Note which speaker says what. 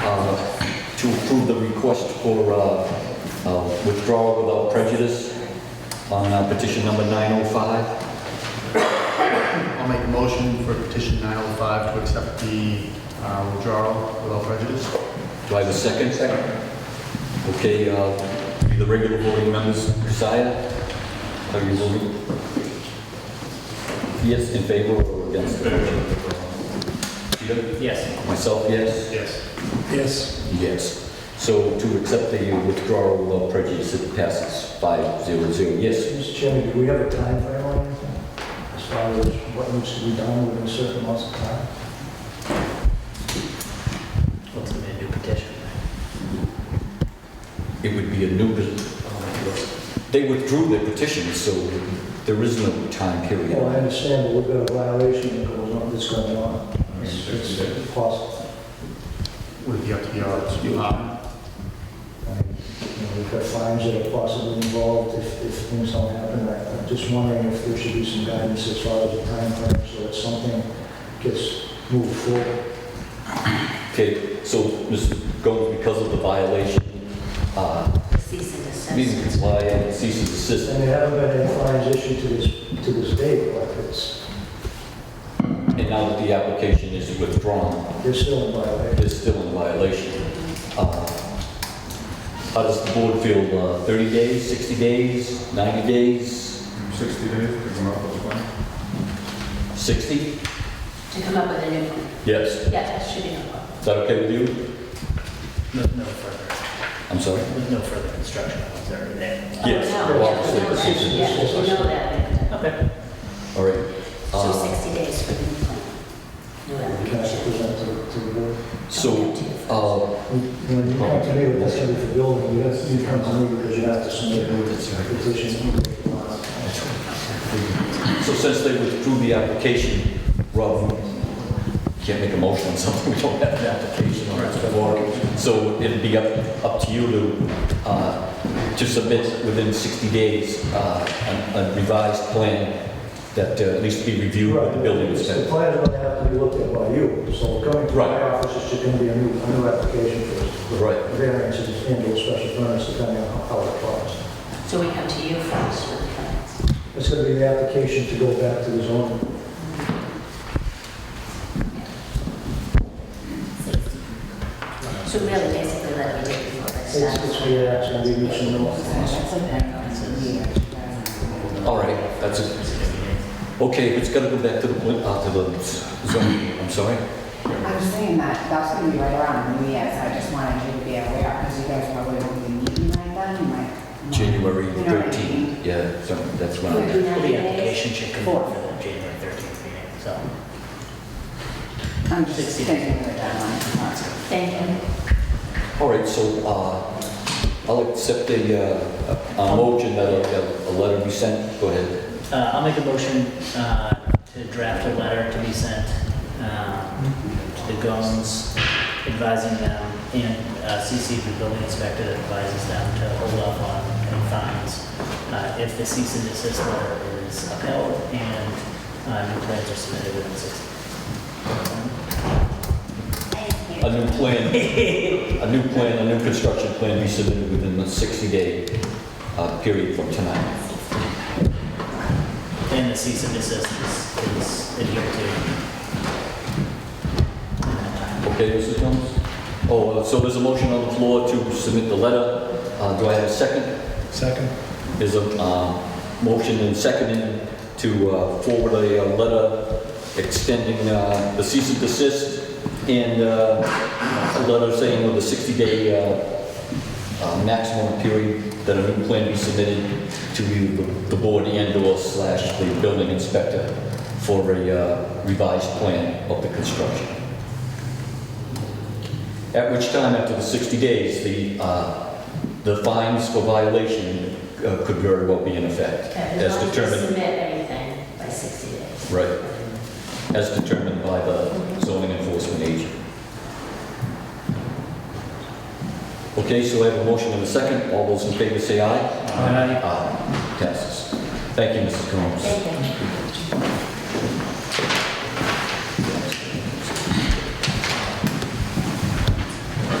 Speaker 1: uh, approve the request for uh, uh, withdrawal without prejudice on uh, petition number 905.
Speaker 2: I'll make a motion for petition 905 to accept the uh, withdrawal without prejudice.
Speaker 1: Do I have a second? Second. Okay, uh, do the regular voting members, Messiah, are you voting? Yes, in favor or against? Peter?
Speaker 3: Yes.
Speaker 1: Myself, yes?
Speaker 2: Yes.
Speaker 4: Yes.
Speaker 1: Yes. So to accept the withdrawal without prejudice, it passes 500. Yes,
Speaker 4: Mr. Chairman, do we have a time frame on anything? As far as what needs to be done within certain amounts of time?
Speaker 3: What's the new petition?
Speaker 1: it would be a new, they withdrew their petition, so there is no time period.
Speaker 4: Well, I understand, but we've got a violation that goes on, that's going on. It's it's possible.
Speaker 2: Would it be up to the odds?
Speaker 1: You
Speaker 4: I mean, you know, We've got fines that are possibly involved if, if things don't happen. I- I'm just wondering if there should be some guidance as far as the time frame, so that something gets moved forward.
Speaker 1: Okay, so Mr. Gomes, because of the violation, uh,
Speaker 5: Cease and
Speaker 1: means
Speaker 5: desist.
Speaker 1: comply and cease and desist.
Speaker 4: And there haven't been any fines issued to this, to this date, but it's,
Speaker 1: And now that the application is withdrawn,
Speaker 4: they're still in violation.
Speaker 1: it's still in violation. Uh, How does the board feel? Uh, 30 days, 60 days, 90 days,
Speaker 6: 60 days to come up with a plan.
Speaker 1: 60?
Speaker 5: To come up with a new one.
Speaker 1: Yes.
Speaker 5: Yeah, that should be no problem.
Speaker 1: Is that okay with you?
Speaker 3: No, no further,
Speaker 1: I'm sorry?
Speaker 3: no further instruction was already there.
Speaker 1: Yes,
Speaker 5: Oh, no,
Speaker 1: obviously,
Speaker 5: yeah,
Speaker 1: the cease and
Speaker 5: Yeah,
Speaker 4: desist.
Speaker 5: you know that.
Speaker 3: Okay.
Speaker 1: All right.
Speaker 5: So
Speaker 1: Uh,
Speaker 5: 60 days for the new plan. New
Speaker 4: Can I
Speaker 5: application.
Speaker 4: present to, to the board?
Speaker 1: So, uh,
Speaker 4: When you come to me with this every building, you have to come to me because you have to submit a petition.
Speaker 1: so since they withdrew the application, Rob, we can't make a motion on something we don't have an application on. it's before. So it'd be up, up to you to, uh, to submit within 60 days uh, a a revised plan that uh, at least be reviewed by the building
Speaker 4: The
Speaker 1: inspector.
Speaker 4: plan is going to have to be looked at by you, so coming to my
Speaker 1: Right.
Speaker 4: office is just going to be a new, a new application for
Speaker 1: Right.
Speaker 4: variances and or special permits depending on how it falls.
Speaker 5: So we come to you first with the plans.
Speaker 4: It's going to be the application to go back to the zone.
Speaker 5: 60. So really, basically, that we did before that
Speaker 4: It's, it's
Speaker 5: started.
Speaker 1: uh,
Speaker 4: the, it's going to be reaching the,
Speaker 5: That's okay.
Speaker 1: All right, that's it. Okay, it's got to go back to the, pla- uh, to the zoning, I'm sorry?
Speaker 7: I'm just saying that, that's gonna be right around New Year's, I just wanted you to be aware, because you guys probably won't be meeting like that, you might.
Speaker 1: January
Speaker 7: You know what I
Speaker 1: 13th, yeah, so that's when
Speaker 5: Would
Speaker 1: I,
Speaker 5: be
Speaker 3: Well,
Speaker 5: 90
Speaker 3: the
Speaker 5: days.
Speaker 3: application should come in for the January 13th meeting, so.
Speaker 7: mean? I'm just
Speaker 3: 60.
Speaker 7: thinking of that one.
Speaker 5: Thank you.
Speaker 1: all right, so, uh, I'll accept a, uh, a a motion that a, a letter be sent, go ahead.
Speaker 3: Uh, I'll make a motion uh, to draft a letter to be sent um, to the Gomes advising them and uh, CC the building inspector that advises them to hold up on any fines uh, if the cease and desist letter is upheld and uh, new plans are submitted within 60.
Speaker 5: Thank
Speaker 1: A
Speaker 5: you.
Speaker 1: new plan, a new plan, a new construction plan be submitted within the 60-day, uh, period from tonight.
Speaker 3: And the cease and desist is, is adhered to.
Speaker 1: Okay, Mrs. Jones? Oh, uh, so there's a motion on the floor to submit the letter, uh, do I have a second?
Speaker 4: second.
Speaker 1: There's a uh, motion and seconding to uh, forward a uh, letter extending uh, the cease and desist and uh, a letter saying with a 60-day uh, uh, maximum period that a new plan be submitted to the the board and/or slash the building inspector for a uh, revised plan of the construction. At which time, after the 60 days, the, uh, the fines for violation uh, could very well be in effect,
Speaker 5: As
Speaker 1: as
Speaker 5: long as you
Speaker 1: determined,
Speaker 5: submit everything by 60 days.
Speaker 1: right, as determined by the zoning enforcement agent. Okay, so I have a motion and a second. All those in favor say aye. Aye. Passes. Thank you, Mrs. Combs.
Speaker 5: Thank you.